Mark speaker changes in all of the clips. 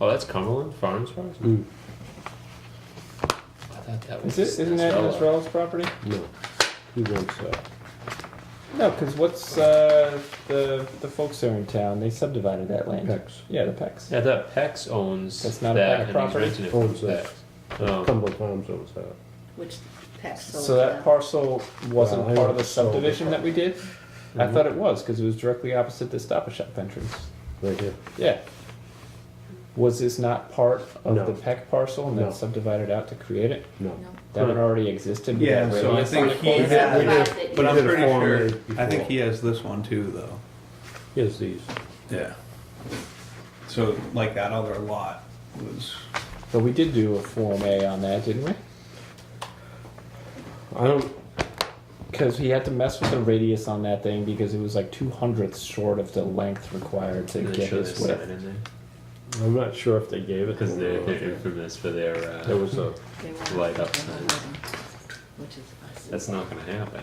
Speaker 1: Oh, that's Cumberland Farms Farms.
Speaker 2: Mm.
Speaker 1: I thought that was.
Speaker 3: Is it, isn't that
Speaker 1: Nasrallah.
Speaker 3: Nasrallah's property?
Speaker 2: No, he wants uh, that.
Speaker 3: No, because what's uh, the the folks there in town? They subdivided that land.
Speaker 2: Pecs.
Speaker 3: Yeah, the Pecks.
Speaker 1: Yeah, I thought Pex owns
Speaker 3: That's not a
Speaker 1: that, and
Speaker 3: private
Speaker 1: he's
Speaker 3: property?
Speaker 1: renting it from
Speaker 2: Owns that.
Speaker 1: Pex. Oh,
Speaker 2: Cumberland Farms owns that.
Speaker 4: which tax
Speaker 5: Oh,
Speaker 4: sold.
Speaker 3: So that parcel wasn't
Speaker 2: Well, I
Speaker 3: part of the
Speaker 2: sold it.
Speaker 3: subdivision that we did. I
Speaker 6: Mm-hmm.
Speaker 3: thought it was because it was directly opposite the Stop and Shop entrance.
Speaker 2: Right here.
Speaker 3: Yeah. Was this not part of
Speaker 2: No.
Speaker 3: the Peck parcel and
Speaker 2: No.
Speaker 3: then subdivided out to create it?
Speaker 2: No.
Speaker 4: No.
Speaker 3: That one already existed. with
Speaker 6: Yeah,
Speaker 3: that
Speaker 6: so I
Speaker 3: radius on
Speaker 6: think
Speaker 3: it.
Speaker 6: he
Speaker 4: It's
Speaker 6: had,
Speaker 4: not
Speaker 6: we did-
Speaker 4: private.
Speaker 6: but I'm
Speaker 2: did a
Speaker 6: pretty
Speaker 2: Form
Speaker 6: sure,
Speaker 2: A
Speaker 6: I think
Speaker 2: before.
Speaker 6: he has this one too, though.
Speaker 2: He has these.
Speaker 6: Yeah. So, like that other lot was,
Speaker 3: But we did do a Form A on that, didn't we?
Speaker 2: I don't,
Speaker 3: Because he had to mess with the radius on that thing because it was like two hundredths short of the length required to
Speaker 1: and they
Speaker 3: get
Speaker 1: show
Speaker 3: his
Speaker 1: this sign
Speaker 3: width.
Speaker 1: in there
Speaker 2: I'm not sure if they gave it. to
Speaker 1: because
Speaker 2: him
Speaker 1: they're,
Speaker 2: or
Speaker 1: they're
Speaker 2: not.
Speaker 1: infamous for their. Uh,
Speaker 2: There was a,
Speaker 4: They want
Speaker 1: Light up
Speaker 4: to-
Speaker 1: sign.
Speaker 4: Which is us.
Speaker 1: that's not going to happen.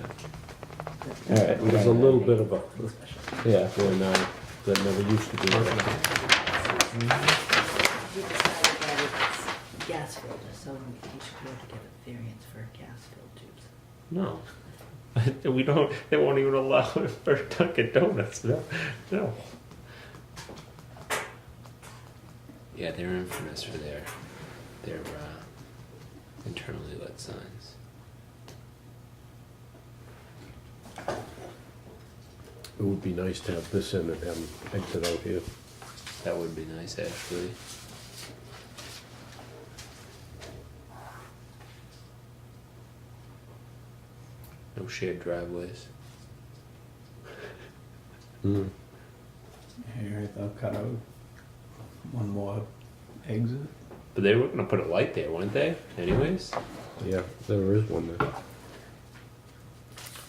Speaker 3: All right,
Speaker 2: there was a little bit of a,
Speaker 4: Special.
Speaker 3: Yeah.
Speaker 2: when, uh, that never used to be there.
Speaker 4: We decided that it's gas filter, so we should be able to get a variance for gas filled tubes.
Speaker 1: No, we don't. They won't even allow it for Dunkin' Donuts. No, no. Yeah, they're infamous for their their uh, internally lit signs.
Speaker 2: It would be nice to have this in and have them exit out here.
Speaker 1: That would be nice, actually. No shared driveways.
Speaker 2: Mm.
Speaker 6: here, they'll cut out one more exit.
Speaker 1: But they were gonna put a light there, weren't they? Anyways.
Speaker 2: Yeah, there is one there.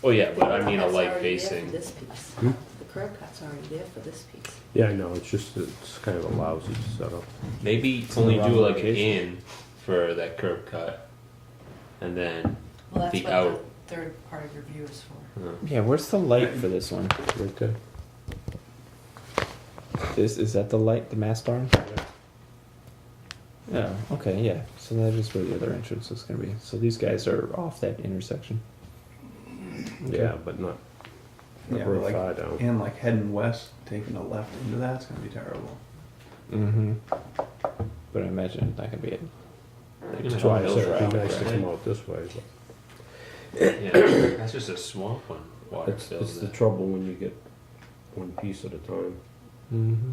Speaker 1: Oh yeah, but I mean a
Speaker 4: That's
Speaker 1: light
Speaker 4: already there for
Speaker 1: facing.
Speaker 4: This piece.
Speaker 2: Hmm?
Speaker 4: The curb cut's already there for this piece.
Speaker 2: Yeah, I know, it's just, it's kind of a lousy setup.
Speaker 1: Maybe
Speaker 3: in
Speaker 1: only
Speaker 3: the
Speaker 1: do
Speaker 3: wrong
Speaker 1: like an
Speaker 3: location.
Speaker 1: in for that curb cut, and then
Speaker 5: Well, that's
Speaker 1: The
Speaker 5: what
Speaker 1: out.
Speaker 5: the third part of your view is for.
Speaker 3: Yeah, where's the light for this one?
Speaker 2: Right there.
Speaker 3: This is that the light, the mast arm? Yeah. Oh, okay, yeah. So that is where the other entrance is gonna be. So these guys are off that intersection.
Speaker 2: Yeah, but not, not
Speaker 6: Yeah,
Speaker 2: real
Speaker 6: like-
Speaker 2: far down.
Speaker 6: And like heading west, taking a left into that's gonna be terrible.
Speaker 3: Mm-hmm. But I imagine it's not gonna be it.
Speaker 1: they're gonna
Speaker 2: That's
Speaker 1: have
Speaker 2: why I
Speaker 1: hills
Speaker 2: said it'd
Speaker 1: around
Speaker 2: be
Speaker 1: it,
Speaker 2: nice to
Speaker 1: right?
Speaker 2: come out this way, but.
Speaker 1: Yeah, that's just a swamp when water
Speaker 2: It's, it's
Speaker 1: fills
Speaker 2: the
Speaker 1: it.
Speaker 2: trouble when you get one piece at a time.
Speaker 3: Mm-hmm.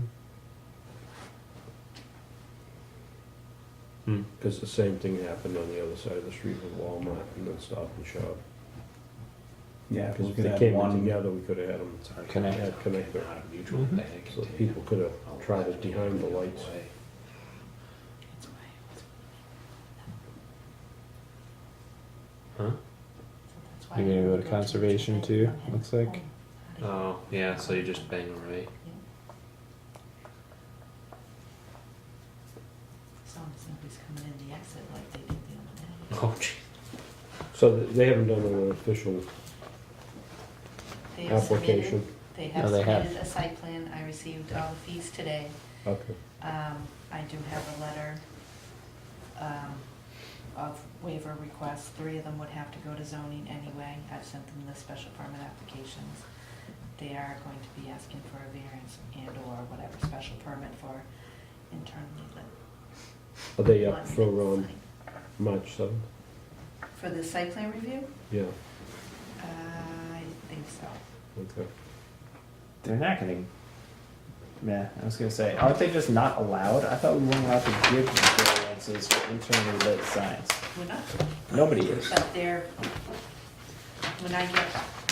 Speaker 1: Hmm.
Speaker 2: Because the same thing happened on the other side of the street with Walmart and then Stop and Shop.
Speaker 6: Yeah,
Speaker 2: Because
Speaker 6: we
Speaker 2: if
Speaker 6: could
Speaker 2: they
Speaker 6: have
Speaker 2: came in
Speaker 6: one.
Speaker 2: together, we could have had them,
Speaker 1: Sorry,
Speaker 3: Connect.
Speaker 2: had connected.
Speaker 1: Not a mutual
Speaker 3: Mhm.
Speaker 1: thing.
Speaker 2: So that people could have tried it behind the lights.
Speaker 4: That's why,
Speaker 1: Huh?
Speaker 5: So that's why
Speaker 3: You're gonna
Speaker 5: we
Speaker 3: go
Speaker 5: would
Speaker 3: to
Speaker 5: the
Speaker 3: conservation
Speaker 5: tree
Speaker 3: too,
Speaker 5: line and
Speaker 3: looks like?
Speaker 5: home.
Speaker 1: Oh, yeah, so you just bang right.
Speaker 5: As long as nobody's coming in the exit like they did the other day.
Speaker 1: Oh, gee.
Speaker 2: So th- they haven't done an official
Speaker 5: They have
Speaker 2: application.
Speaker 5: submitted, they
Speaker 3: No,
Speaker 5: have
Speaker 3: they have.
Speaker 5: submitted a site plan, I received all the fees today.
Speaker 2: Okay.
Speaker 5: Um, I do have a letter, um, of waiver requests, three of them would have to go to zoning anyway. I've sent them the special permit applications. They are going to be asking for a variance and or whatever special permit for internally lit.
Speaker 2: Are they up
Speaker 5: lighting
Speaker 2: for, um,
Speaker 5: sign.
Speaker 2: March seventh?
Speaker 5: For the site plan review? Uh,
Speaker 2: Yeah,
Speaker 5: I think so.
Speaker 2: okay.
Speaker 3: They're not gonna. Yeah, I was gonna say, aren't they just not allowed? I thought we weren't allowed to give variances for internally lit signs.
Speaker 5: We're not,
Speaker 3: Nobody is.
Speaker 5: but they're, when I get,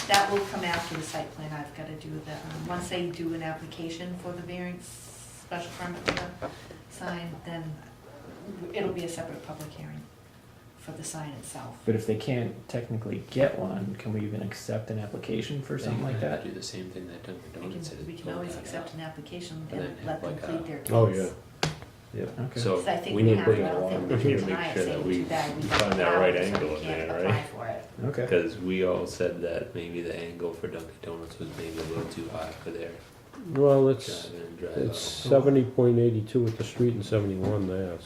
Speaker 5: that will come after the site plan. I've got to do the, um, once they do an application for the variance, special permit for the sign, then it'll be a separate public hearing for the sign itself.
Speaker 3: But if they can't technically get one, can we even accept an application for something like
Speaker 1: They
Speaker 3: that?
Speaker 1: Do the same thing that Dunkin'
Speaker 5: We
Speaker 1: Donuts
Speaker 5: can,
Speaker 1: did.
Speaker 5: we can
Speaker 1: Pull
Speaker 5: always
Speaker 1: that
Speaker 5: accept
Speaker 1: out.
Speaker 5: an application
Speaker 1: And
Speaker 5: and
Speaker 1: then
Speaker 5: let
Speaker 1: have
Speaker 5: them
Speaker 1: like a-
Speaker 5: plead their case.
Speaker 2: Oh, yeah. Yeah.
Speaker 3: Okay.
Speaker 1: So
Speaker 5: Because I think
Speaker 1: we
Speaker 5: we
Speaker 1: need
Speaker 5: have,
Speaker 1: to
Speaker 5: I don't think we
Speaker 1: we need
Speaker 5: can
Speaker 1: to
Speaker 5: deny
Speaker 1: make
Speaker 5: it,
Speaker 1: sure
Speaker 5: say
Speaker 1: that
Speaker 5: too
Speaker 1: we
Speaker 5: bad, we can't
Speaker 1: find that
Speaker 5: allow
Speaker 1: right
Speaker 5: it, so we
Speaker 1: angle in there,
Speaker 5: can't apply
Speaker 1: right?
Speaker 5: for it.
Speaker 3: Okay.
Speaker 1: Because we all said that maybe the angle for Dunkin' Donuts was maybe a little too high for their
Speaker 2: Well, it's,
Speaker 1: Drive in, drive out.
Speaker 2: it's seventy point eighty-two at the street and seventy-one there,